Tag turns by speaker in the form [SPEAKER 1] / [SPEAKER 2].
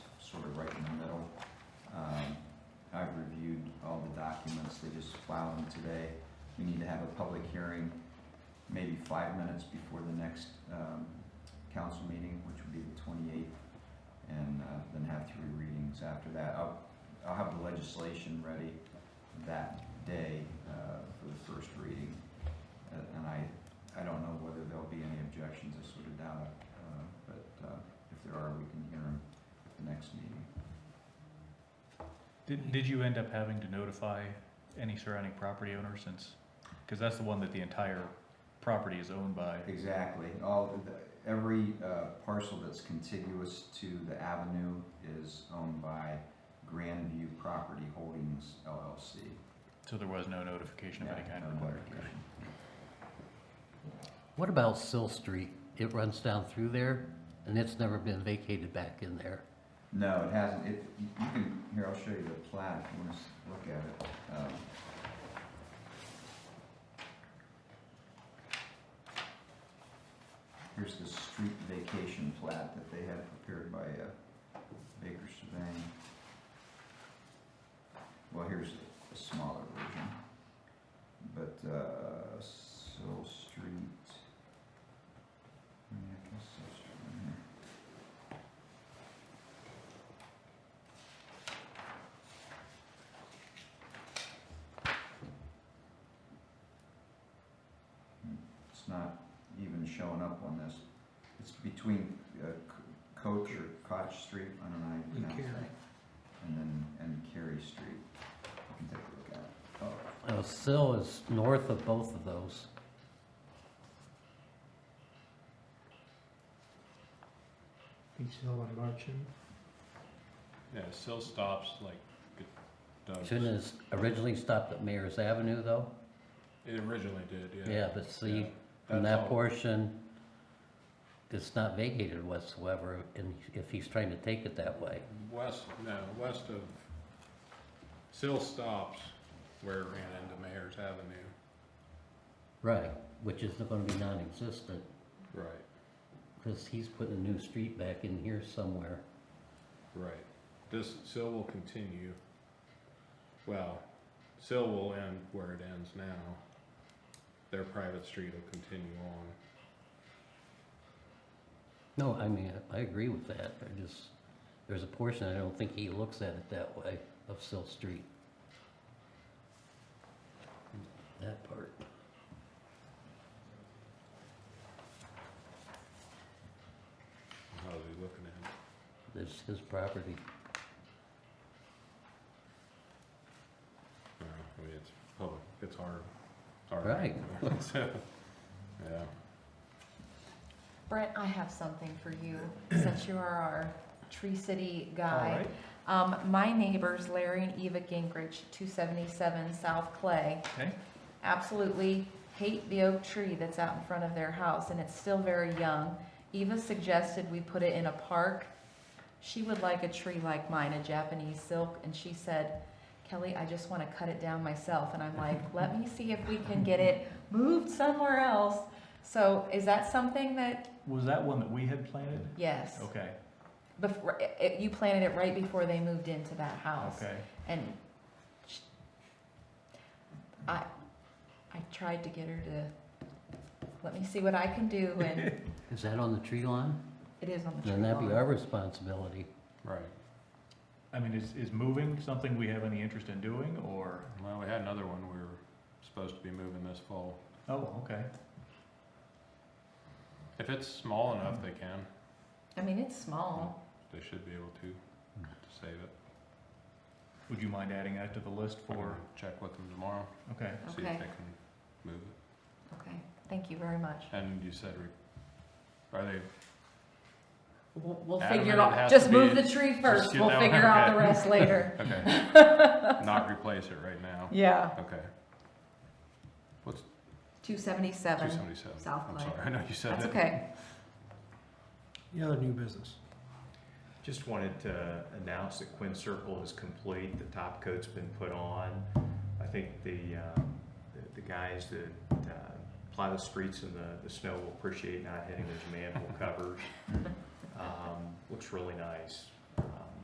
[SPEAKER 1] Um, plowing today. We need to have a public hearing, maybe five minutes before the next, um, council meeting, which would be the twenty-eighth. And, uh, then have three readings after that. I'll, I'll have the legislation ready that day, uh, for the first reading. Uh, And I, I don't know whether there'll be any objections, I sort of doubt it, uh, but, uh, if there are, we can hear them at the next meeting.
[SPEAKER 2] Did, did you end up having to notify any surrounding property owners since, because that's the one that the entire property is owned by?
[SPEAKER 1] Exactly, all, the- every uh, parcel that's contiguous to the avenue is owned by Grandview Property Holdings LLC.
[SPEAKER 2] So there was no notification of any kind
[SPEAKER 1] No
[SPEAKER 2] required?
[SPEAKER 1] clarification.
[SPEAKER 3] What about Sill Street? It runs down through there, and it's never been vacated back in there.
[SPEAKER 1] No, it hasn't, it, you you can, here, I'll show you the plat if you wanna s- look at it. Um, Here's the street vacation plat that they had prepared by, uh, Baker Surveying. Well, here's a smaller version. But, uh, Sill Street. Yeah, I guess Sill Street, right here. It's not even showing up on this. It's between uh, C- Coach or Koch Street, I don't know how you
[SPEAKER 4] And
[SPEAKER 1] pronounce
[SPEAKER 4] Carey.
[SPEAKER 1] that. And then, and Carey Street. You can take a look at it. Oh,
[SPEAKER 3] Now, Sill is north of both of those.
[SPEAKER 4] Beach Hill and Marchand.
[SPEAKER 5] Yeah, still stops like it does.
[SPEAKER 3] Shouldn't it have originally stopped at Mayor's Avenue, though?
[SPEAKER 5] It originally did, yeah.
[SPEAKER 3] Yeah, but see,
[SPEAKER 5] Yeah.
[SPEAKER 3] from
[SPEAKER 5] That's
[SPEAKER 3] that
[SPEAKER 5] all-
[SPEAKER 3] portion, it's not vacated whatsoever, and if he's trying to take it that way.
[SPEAKER 5] West, no, uh, west of, still stops where it ran into Mayor's Avenue.
[SPEAKER 3] Right. Which is gonna be non-existent,
[SPEAKER 5] Right,
[SPEAKER 3] because he's putting a new street back in here somewhere.
[SPEAKER 5] right. This, still will continue. Well, still will end where it ends now. Their private street will continue on.
[SPEAKER 3] No, I mean, I I agree with that, I just, there's a portion, I don't think he looks at it that way, of Sill Street. That part.
[SPEAKER 5] How's he looking at it?
[SPEAKER 3] It's his property.
[SPEAKER 5] No, I mean, it's public, it's hard. It's hard.
[SPEAKER 3] Right.
[SPEAKER 5] So, Yeah.
[SPEAKER 6] Brent, I have something for you, since you are our Tree City guy.
[SPEAKER 4] Alright.
[SPEAKER 6] Um, my neighbors, Larry and Eva Gingrich, two seventy-seven South Clay,
[SPEAKER 2] Okay,
[SPEAKER 6] absolutely hate the oak tree that's out in front of their house, and it's still very young. Eva suggested we put it in a park. She would like a tree like mine, a Japanese silk, and she said, Kelly, I just want to cut it down myself. And I'm like, let me see if we can get it moved somewhere else. So is that something that,
[SPEAKER 2] was that one that we had planted?
[SPEAKER 6] yes.
[SPEAKER 2] Okay,
[SPEAKER 6] Before, it, it- you planted it right before they moved into that house.
[SPEAKER 2] okay.
[SPEAKER 6] And sh- I, I tried to get her to, let me see what I can do and
[SPEAKER 3] Is that on the tree line?
[SPEAKER 6] it is on the tree
[SPEAKER 3] Then that'd be
[SPEAKER 6] lawn.
[SPEAKER 3] our responsibility.
[SPEAKER 5] Right.
[SPEAKER 2] I mean, is, is moving something we have any interest in doing, or,
[SPEAKER 5] Well, we had another one we were supposed to be moving this fall.
[SPEAKER 2] oh, okay.
[SPEAKER 5] If it's small enough, they can.
[SPEAKER 6] I mean, it's small.
[SPEAKER 5] They should be able to, to save it.
[SPEAKER 2] Would you mind adding that to the list
[SPEAKER 5] I can
[SPEAKER 2] for,
[SPEAKER 5] Check with them tomorrow,
[SPEAKER 2] okay,
[SPEAKER 5] see if
[SPEAKER 6] Okay.
[SPEAKER 5] they can move it.
[SPEAKER 6] Okay, thank you very much.
[SPEAKER 5] And you said, re- are they,
[SPEAKER 6] We'll, we'll
[SPEAKER 5] Adam,
[SPEAKER 6] figure
[SPEAKER 5] it
[SPEAKER 6] it out,
[SPEAKER 5] has
[SPEAKER 6] just
[SPEAKER 5] to be-
[SPEAKER 6] move the tree first.
[SPEAKER 5] get
[SPEAKER 6] We'll
[SPEAKER 5] that one,
[SPEAKER 6] figure out the
[SPEAKER 5] okay.
[SPEAKER 6] rest later.
[SPEAKER 5] okay, not replace it right now?
[SPEAKER 6] Yeah.
[SPEAKER 5] Okay. What's,
[SPEAKER 6] Two
[SPEAKER 5] two
[SPEAKER 6] seventy-seven.
[SPEAKER 5] seventy-seven?
[SPEAKER 6] South
[SPEAKER 5] I'm
[SPEAKER 6] Clay.
[SPEAKER 5] sorry, I know you said it.
[SPEAKER 6] That's okay.
[SPEAKER 4] Any other new business?
[SPEAKER 7] Just wanted to announce that Quinn Circle is complete, the top coat's been put on. I think the, um, the- the guys that uh, ply the streets in the, the snow will appreciate not hitting those manhole covers. Um, Looks really nice.